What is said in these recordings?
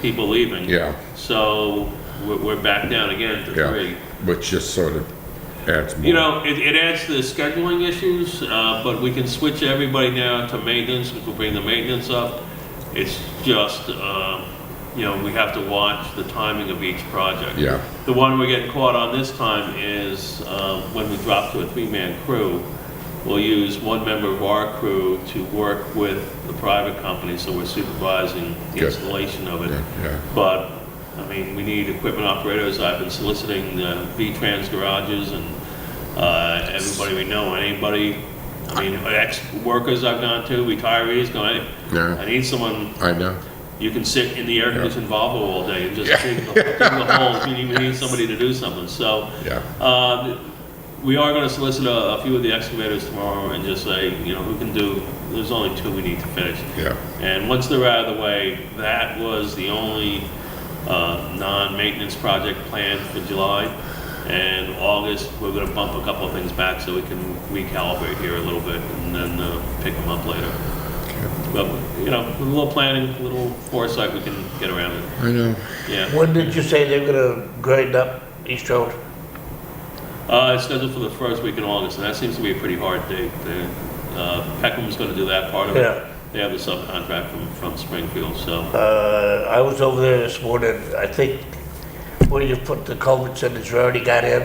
people leaving. Yeah. So we're, we're back down again to yeah, three. which just sort of adds more. You know, it, it adds to the scheduling issues, uh, but we can switch everybody now to maintenance, which will bring the maintenance up. It's just, um, you know, we have to watch the timing of each project. Yeah. The one we're getting caught on this time is, um, when we drop to a three-man crew, we'll use one member of our crew to work with the private company, so we're supervising the Good. installation of it. Yeah, yeah. But, I mean, we need equipment operators. I've been soliciting the V-Trans garages and uh, everybody we know, and anybody, I mean, ex-workers I've gone to, retirees, going, Yeah. I need someone, I know, you can sit in the air-conditioned Volvo all day and just dig the dig the holes. We need- We need somebody to do something. So yeah, uh, we are going to solicit a a few of the excavators tomorrow and just say, you know, who can do, there's only two we need to finish. yeah, And once they're out of the way, that was the only uh, non-maintenance project planned for July. And August, we're gonna bump a couple of things back so we can recalibrate here a little bit and then uh, pick them up later. But, you know, with a little planning, a little foresight, we can get around it, I know. yeah. When did you say they're gonna grind up East Road? Uh, It's scheduled for the first week in August, and that seems to be a pretty hard date. The, uh, Peckham's gonna do that part of Yeah. it. They have the subcontract from from Springfield, so, Uh, I was over there this morning, I think where you put the culverts in, it's already got in.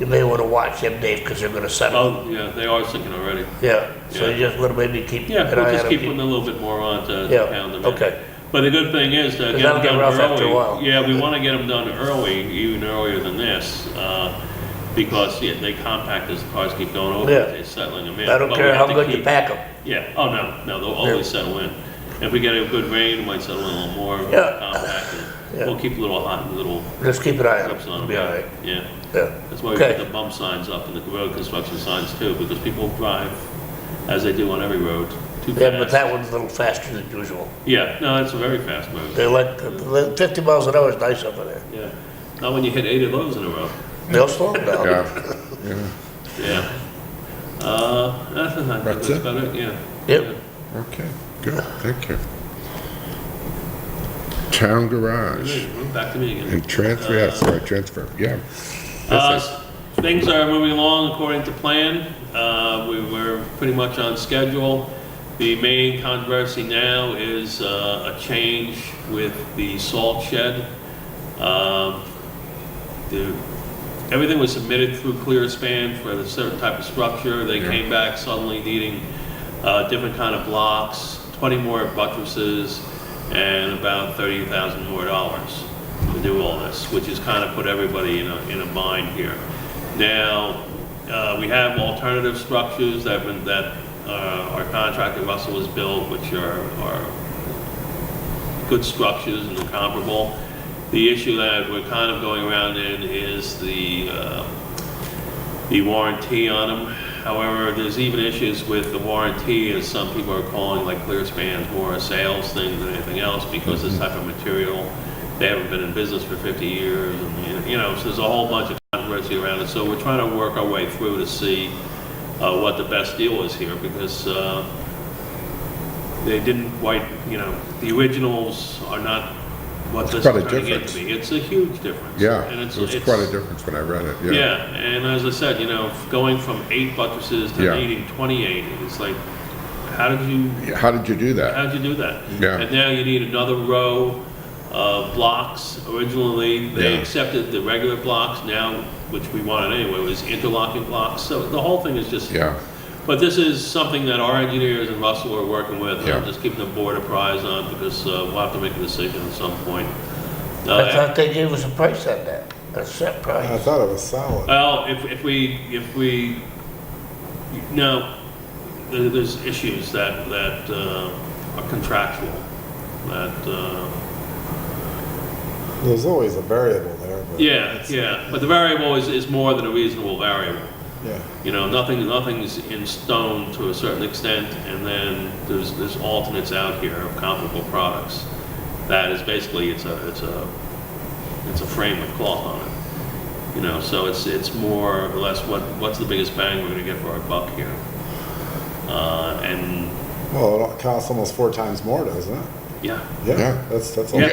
You may wanna watch them, Dave, because they're gonna settle. Mm-hmm. oh, yeah, they are sinking already. Yeah, so you Yeah. just wanna maybe keep an Yeah, we'll eye just on keep putting them. a little bit more on to Yeah, to pound them in. okay. But the good thing is to get that'll them get done rough after a while. early. Yeah, we want to get them done early, even earlier than this, uh, because, yeah, they compact as the cars keep going over, Yeah. they're settling them in. I don't But we care how have to good you keep- pack them. Yeah, oh, no, no, they'll always settle in. If we get a good rain, it might settle in a little more, Yeah. compact, Yeah. and we'll keep little hot, little Just keep an eye on clips them. on It'll them. Be all right, Yeah, yeah. that's why we Okay. put the bump signs up and the road construction signs too, because people drive, as they do on every road, too fast. Yeah, but that one's a little faster than usual. Yeah, no, it's a very fast move. They like, the- the fifty miles an hour is nice over there. Yeah. Not when you hit eight of those in a row. They'll slow them down. Yeah, Yeah. Uh, I think That's that's it? about it, yeah. Yep. Yeah. okay, good, thank you. Town garage Hey, well, Back to me again. and transfer, yeah, sorry, transfer, yeah. Uh, This is- Things are moving along according to plan. Uh, We were pretty much on schedule. The main controversy now is uh, a change with the salt shed. Um, the- Everything was submitted through ClearSpan for the certain type of structure. They Yeah. came back suddenly needing uh, different kind of blocks, 20 more buttresses, and about 30,000 more dollars to do all this, which has kind of put everybody in a, in a bind here. Now, uh, we have alternative structures that have been, that uh, our contractor Russell has built, which are, are good structures and they're comparable. The issue that we're kind of going around in is the, uh, the warranty on them. However, there's even issues with the warranty, as some people are calling, like Clearspan's more a sales thing than anything else, because this type of material, they haven't been in business for 50 years, and, you know, so there's a whole bunch of controversy around it. So we're trying to work our way through to see uh, what the best deal is here, because uh, they didn't quite, you know, the originals are not what this is quite a turning out difference. to be. It's a huge difference. Yeah, and it's it was it's- quite a difference when I read it, yeah. yeah, and as I said, you know, going from eight buttresses to Yeah. needing 28, it's like, how did you, How did you do that? how'd you do that? Yeah. And now you need another row of blocks. Originally, they Yeah. accepted the regular blocks, now, which we wanted anyway, was interlocking blocks. So the whole thing is just Yeah, but this is something that our engineers and Russell are working with, and I'm Yeah. just keeping the board apprised on, because uh, we'll have to make a decision at some point. I Uh, thought they gave us a price on that, a set I price. thought it was solid. Well, if, if we, if we, no, there- there's issues that, that uh, are contractual, that, uh, There's always a variable there, but. yeah, it's- yeah, but the variable is, is more than a reasonable variable. Yeah, You know, nothing, nothing's in stone to a certain extent, and then there's, there's alternates out here of comparable products. That is basically, it's a, it's a, it's a frame with cloth on it. You know, so it's, it's more or less what, what's the biggest bang we're gonna get for our buck here? Uh, and, well, it costs almost four times more, doesn't it? yeah, Yeah. Yeah, that's, that's. a Yeah, lot.